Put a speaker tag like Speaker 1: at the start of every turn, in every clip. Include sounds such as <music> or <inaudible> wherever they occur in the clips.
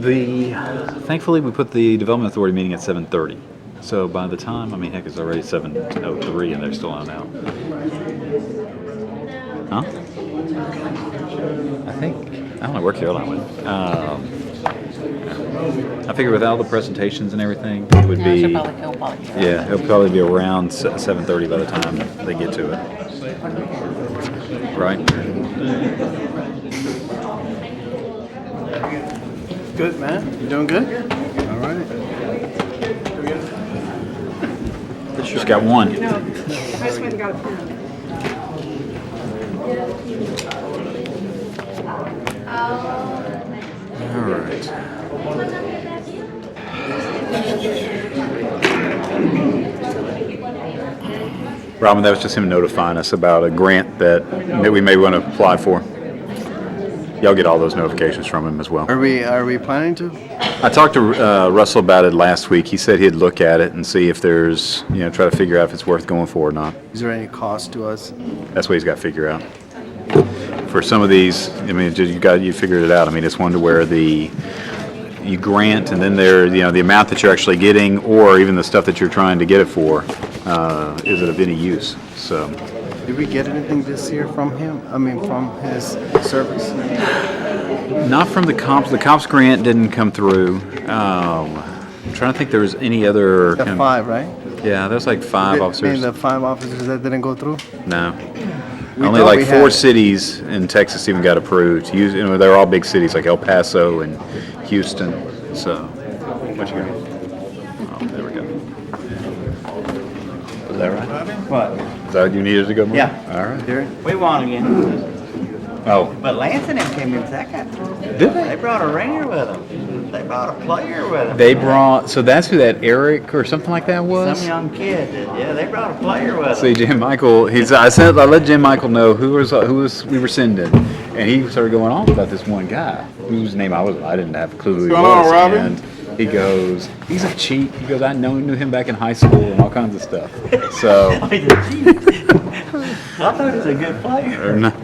Speaker 1: The, thankfully, we put the Development Authority meeting at 7:30. So by the time, I mean, heck, it's already 7:03 and they're still on out. Huh? I think, I don't know where Caroline went. Um, I figure with all the presentations and everything, it would
Speaker 2: Yeah, I should
Speaker 1: be,
Speaker 2: probably, he'll probably do that.
Speaker 1: yeah, it'll probably be around s- 7:30 by the time they get to it. Right?
Speaker 3: Good, man. You doing good? All right.
Speaker 1: Just got one.
Speaker 4: No, I just went and got a pen.
Speaker 3: All right.
Speaker 1: Robin, that was just him notifying us about a grant that, that we may want to apply for. Y'all get all those notifications from him as well.
Speaker 3: Are we are we planning to?
Speaker 1: I talked to uh, Russell about it last week. He said he'd look at it and see if there's, you know, try to figure out if it's worth going for or not.
Speaker 3: Is there any cost to us?
Speaker 1: That's what he's got to figure out. For some of these, I mean, you got, you figured it out. I mean, it's one to where the, you grant and then there, you know, the amount that you're actually getting or even the stuff that you're trying to get it for, uh, is it of any use? So,
Speaker 3: Did we get anything this year from him? I mean, from his service?
Speaker 1: Not from the comps. The comps grant didn't come through. Um, I'm trying to think there was any other.
Speaker 3: The
Speaker 1: kind of-
Speaker 3: five, right?
Speaker 1: Yeah, there's like five
Speaker 3: Did- I mean,
Speaker 1: officers.
Speaker 3: the five officers that didn't go through.
Speaker 1: no.
Speaker 3: We
Speaker 1: Only
Speaker 3: thought
Speaker 1: like
Speaker 3: we
Speaker 1: four
Speaker 3: had-
Speaker 1: cities in Texas even got approved. Hous- You know, they're all big cities like El Paso and Houston. So, what you got? Oh, there we go. Was that right?
Speaker 5: What?
Speaker 1: Is that what you needed to go? Mark?
Speaker 5: Yeah.
Speaker 1: All right.
Speaker 3: There.
Speaker 5: We won again.
Speaker 1: Oh,
Speaker 5: But Lance and them came in second.
Speaker 1: did
Speaker 5: They
Speaker 1: they?
Speaker 5: brought a ringer with them. They brought a player with them.
Speaker 1: They brought. So that's who that Eric or something like that was.
Speaker 5: Some young kid did. Yeah, they brought a player with <laughs>
Speaker 1: See
Speaker 5: them.
Speaker 1: Jim Michael. He's. I sent. I let Jim Michael know who was who was we were sending, and he started going on about this one guy whose name I was. I didn't have a clue who he
Speaker 3: Come
Speaker 1: was.
Speaker 3: on, Robbie.
Speaker 1: And he goes, he's a cheat. He goes, I know knew him back in high school and all kinds of stuff. So,
Speaker 5: He's a cheat. I thought he was a good player.
Speaker 1: or not-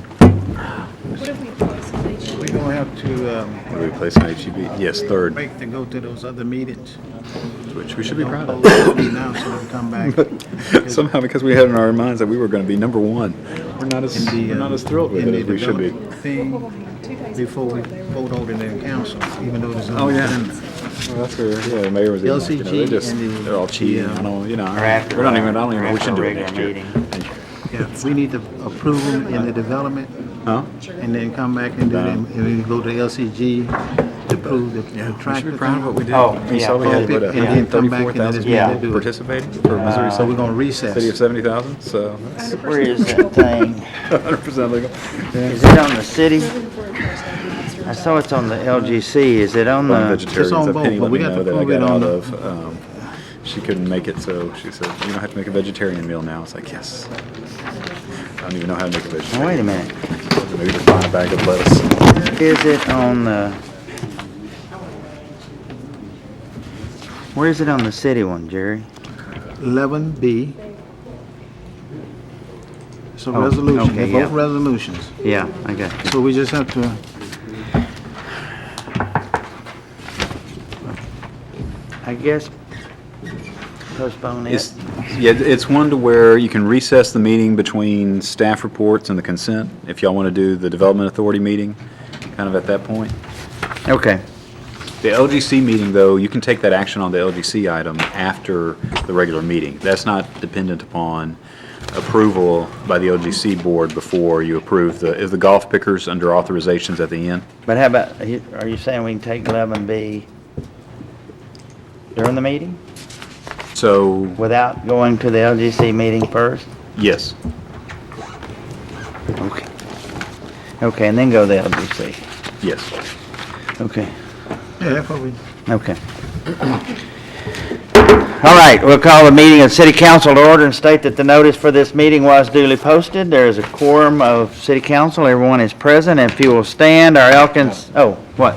Speaker 4: What if we close the meeting?
Speaker 6: We don't have to um,
Speaker 1: what are we placing HEB? E Yes, third,
Speaker 6: break to go to those other meetings.
Speaker 1: which we should be proud
Speaker 6: Don't
Speaker 1: of.
Speaker 6: post me now so we can come
Speaker 3: <laughs>
Speaker 1: <laughs>
Speaker 6: back.
Speaker 1: Somehow, because we had in our minds that we were going to be number one, we're not as
Speaker 6: The,
Speaker 1: we're
Speaker 6: uh,
Speaker 1: not as thrilled with
Speaker 6: in
Speaker 1: it
Speaker 6: the
Speaker 1: as we should be.
Speaker 6: development
Speaker 4: Well,
Speaker 6: Thing
Speaker 4: we'll have two days
Speaker 6: before we
Speaker 4: before they were-
Speaker 6: vote over the council, even though there's.
Speaker 1: Oh, yeah. Well, that's where, yeah, the mayor was. even like, you know, they
Speaker 6: LCG
Speaker 1: just-
Speaker 6: and the-
Speaker 1: They're all cheating.
Speaker 6: yeah.
Speaker 1: I don't, you know,
Speaker 5: Or after,
Speaker 1: we're not even, I don't even know
Speaker 5: uh,
Speaker 1: we should
Speaker 5: after
Speaker 1: do
Speaker 5: a
Speaker 1: it next
Speaker 5: regular
Speaker 1: year.
Speaker 6: Yeah, we need to approve them in the development
Speaker 1: Huh?
Speaker 6: and then come back and do them, and then go to LCG to approve the the
Speaker 1: Um, We
Speaker 6: track.
Speaker 1: should be
Speaker 6: the
Speaker 1: proud of
Speaker 6: thing.
Speaker 1: what we did.
Speaker 5: Oh,
Speaker 1: You
Speaker 5: yeah.
Speaker 1: saw we had,
Speaker 6: Hope it-
Speaker 1: what, a
Speaker 6: and
Speaker 1: hundred and
Speaker 6: then come back
Speaker 1: thirty-four
Speaker 6: and then it's
Speaker 1: thousand
Speaker 5: been
Speaker 1: people
Speaker 6: do it.
Speaker 1: participating for Missouri
Speaker 6: So we're
Speaker 1: City. City
Speaker 6: gonna
Speaker 1: of
Speaker 6: recess.
Speaker 1: seventy thousand, so that's <laughs>
Speaker 5: Where is that thing?
Speaker 1: hundred percent legal.
Speaker 5: Is it on the city?
Speaker 4: Moving forward, first, I'll do monster
Speaker 5: I saw it's on the LGC. Is it on
Speaker 1: One
Speaker 5: the?
Speaker 1: vegetarian,
Speaker 6: Uh, on
Speaker 1: a
Speaker 6: both,
Speaker 1: penny
Speaker 6: but
Speaker 1: let
Speaker 6: we
Speaker 1: me
Speaker 6: got
Speaker 1: know
Speaker 6: to
Speaker 1: that I
Speaker 6: prove it
Speaker 1: got out
Speaker 6: on
Speaker 1: of, um, she couldn't make it, so she said, you don't have to make a vegetarian meal now. I was like, yes. I don't even know how to make a
Speaker 5: Oh, Wait a
Speaker 1: vegetarian.
Speaker 5: minute.
Speaker 1: Maybe just buy a bag of lettuce.
Speaker 5: Is it on the? Where is it on the city one, Jerry?
Speaker 6: Eleven B. It's a
Speaker 5: Oh,
Speaker 6: resolution,
Speaker 5: okay,
Speaker 6: they're both
Speaker 5: yeah.
Speaker 6: resolutions.
Speaker 5: Yeah, I got you.
Speaker 6: So we just have to
Speaker 5: I guess postpone it.
Speaker 1: It's, yeah, it's one to where you can recess the meeting between staff reports and the consent, if y'all want to do the Development Authority meeting, kind of at that point.
Speaker 5: Okay.
Speaker 1: The LGC meeting, though, you can take that action on the LGC item after the regular meeting. That's not dependent upon approval by the LGC board before you approve the, is the golf pickers under authorizations at the end?
Speaker 5: But how about, are you saying we can take eleven B during the meeting
Speaker 1: So,
Speaker 5: without going to the LGC meeting first?
Speaker 1: yes.
Speaker 5: Okay. Okay, and then go to the LGC.
Speaker 1: Yes.
Speaker 5: Okay,
Speaker 6: Yeah, that's what we,
Speaker 5: okay. All right, we'll call the meeting of City Council to order and state that the notice for this meeting was duly posted. There is a quorum of City Council. Everyone is present. If you will stand, our Elkins, oh, what?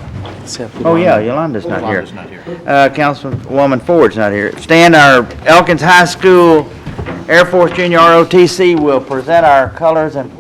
Speaker 5: Oh, yeah, Yolanda's not here.
Speaker 6: Yolanda's not here.
Speaker 5: Uh, Councilwoman Ford's not here. Stand, our Elkins High School Air Force Junior ROTC will present our colors and